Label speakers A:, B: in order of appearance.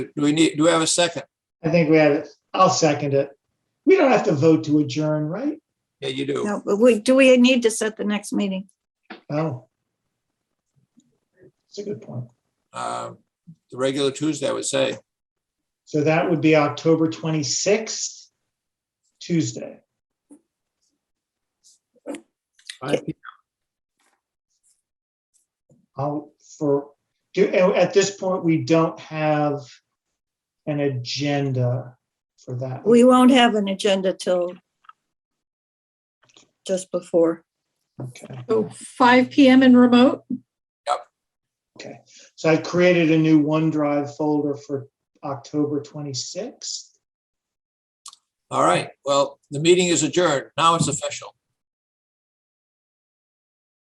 A: Do we need, do we have a second?
B: I think we have it. I'll second it. We don't have to vote to adjourn, right?
A: Yeah, you do.
C: No, but we, do we need to set the next meeting?
B: No. It's Oh. a good point.
A: Um, The regular Tuesday, I would say.
B: So that would be October 26th, Tuesday. I'll, for, do, at this point, we don't have an agenda for that.
C: We won't have an agenda till just before.
B: Okay.
D: So 5 PM in remote?
B: So I've created a new OneDrive folder for October 26th.
A: All right, well, the meeting is adjourned. Now it's official.